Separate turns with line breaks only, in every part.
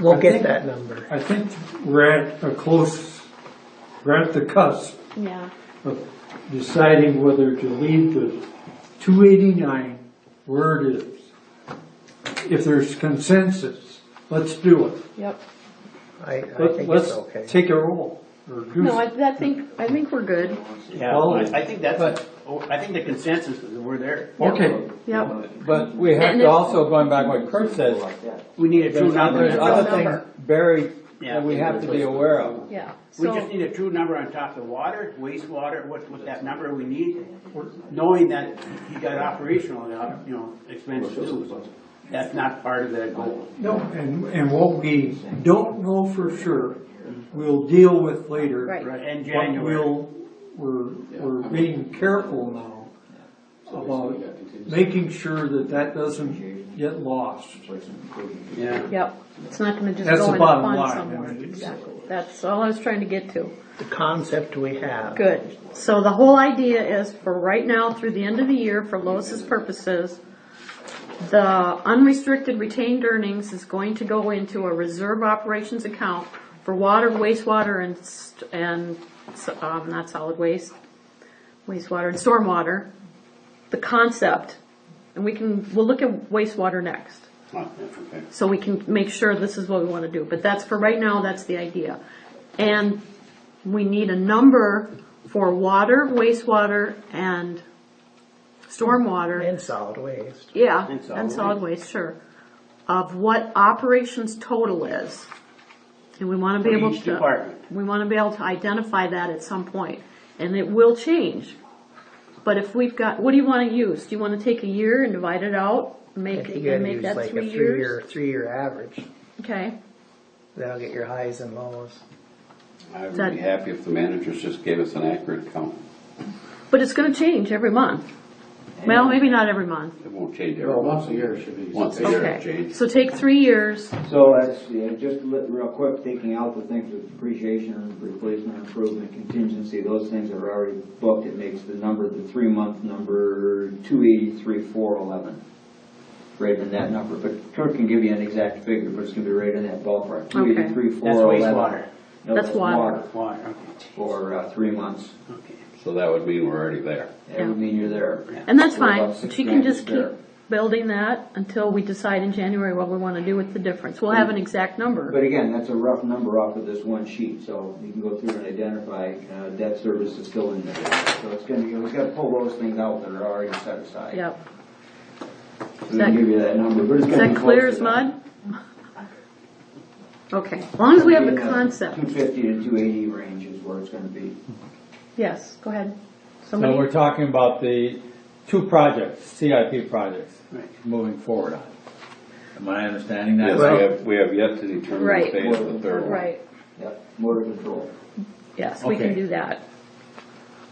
We'll
I
get
think-
that number.
I think we're at a close, we're at the cusp
Yeah,
of deciding whether to leave the two eighty-nine where it is. If there's consensus, let's do it.
yep.
I, I
Let-
think it's
Let's
okay.
take a roll or do
No, I, I think, I think we're good.
Yeah,
Well,
I I think that's,
but-
oh, I think the consensus is we're there.
Okay,
Yep,
But we have
And
to
it's-
also, going back what Kurt says,
We need a true
there's
number.
there's other
number.
things buried
Yeah.
that we have to be aware of.
yeah.
We just
So,
need a true number on top of water, wastewater, what, what that number we need, knowing that you got operational, you know, expenses too. That's not part of that goal.
no, and, and what we don't know for sure, we'll deal with later.
Right.
And
But
January,
we'll, we're, we're being careful now about making sure that that doesn't get lost.
yeah.
yep, it's not gonna just
That's
go
the
in a
bottom
fund
line,
somewhere.
I mean, it's-
Exactly, that's all I was trying to get to.
The concept we have.
Good. So the whole idea is for right now through the end of the year, for Lois's purposes, the unrestricted retained earnings is going to go into a reserve operations account for water, wastewater, and, st- and, so- um, not solid waste, wastewater and stormwater. The concept, and we can, we'll look at wastewater next
Oh, that's okay.
so we can make sure this is what we want to do. But that's for right now, that's the idea. And we need a number for water, wastewater, and stormwater.
And solid waste.
Yeah,
And solid
and solid waste, sure. Of what operations total is. And we want to be
For
able to.
each department.
We want to be able to identify that at some point, and it will change. But if we've got, what do you want to use? Do you want to take a year and divide it out?
I
Make,
think you gotta
and make
use
that
like a
three
three-year,
years?
three-year average.
Okay.
That'll get your highs and lows.
I would
That-
be happy if the managers just gave us an accurate count.
But it's gonna change every month. Well, maybe not every month.
It won't change every
Well,
once a year.
should be.
Once a year, it
Okay,
changes.
so take three years,
So that's, yeah, just li- real quick, taking out the things with depreciation, replacement, improvement, contingency, those things that are already booked, it makes the number, the three-month number, two eighty-three, four eleven. Right in that number, but Kurt can give you an exact figure, but it's gonna be right in that ballpark, two
Okay.
eighty-three,
That's
four eleven.
wastewater.
That's water.
Water,
For, uh, three months,
okay, okay.
So that would mean we're already there.
that would
Yeah.
mean you're there.
and that's
We're about
fine.
six
She can
grand
just keep
there.
building that until we decide in January what we wanna do with the difference. We'll have an exact number.
But again, that's a rough number off of this one sheet, so you can go through and identify, uh, debt service is still in there. So it's gonna, you always gotta pull those things out that are already set aside.
Yep.
So we can give you that number, but it's
Is
gonna be
that
close
clear
to
as
that.
mud? Okay, as long as we have the
Two
concept.
fifty to two eighty range is where it's gonna be.
Yes, go ahead.
So we're
Somebody,
talking about the two projects, CIP projects,
Right.
moving forward on. Am I understanding that?
Yes, we have, we have yet to determine
Right.
the phase of the third one.
right,
Yep, motor control.
yes, we can
Okay.
do that.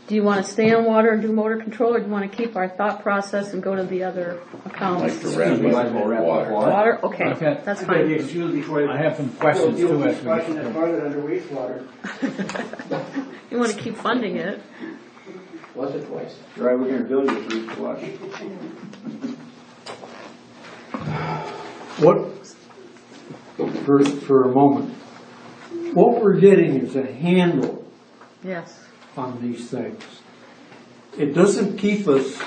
Do you wanna stay on water and do motor control, or do you wanna keep our thought process and go to the other
I'd
accounts?
Like to wrap
Might as
up
well
with
wrap up
water.
Water, okay,
Okay.
that's
I beg your
fine.
excuse before
I have some questions
We'll deal
too
with
as we
discussion
go.
that's started under wastewater.
You wanna keep funding it.
Was it twice? Right, we're gonna build you three flush.
What, for, for a moment, what we're getting is a handle
Yes.
on these things. It doesn't keep us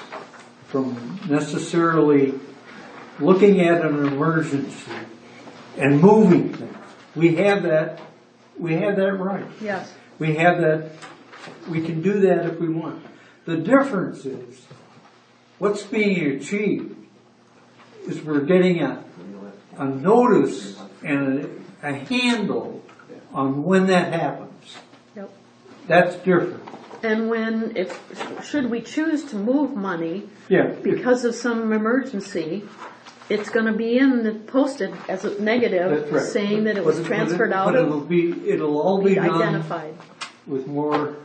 from necessarily looking at an emergency and moving things. We have that, we have that right.
Yes.
We have that, we can do that if we want. The difference is, what's being achieved is we're getting a, a notice and a, a handle on when that happens.
Yep.
That's different.
And when, if, should we choose to move money
Yeah.
because of some emergency, it's gonna be in the, posted as a
That's
negative,
right.
saying that
But
it was transferred
but it-
out
But
of,
it'll be, it'll all be
be
done
identified.
with more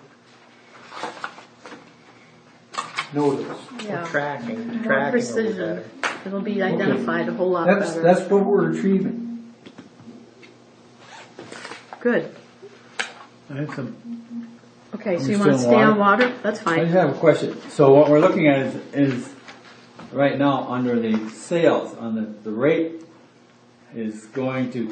notice.
Yeah.
Tracking,
More
tracking will be
precision.
better.
It'll be identified a whole lot
That's,
better.
that's what we're achieving.
Good.
I have some,
Okay, so
I'm
you wanna
still
stay
on
on water? That's
I just
fine.
have a question. So what we're looking at is, is right now, under the sales, on the, the rate is going to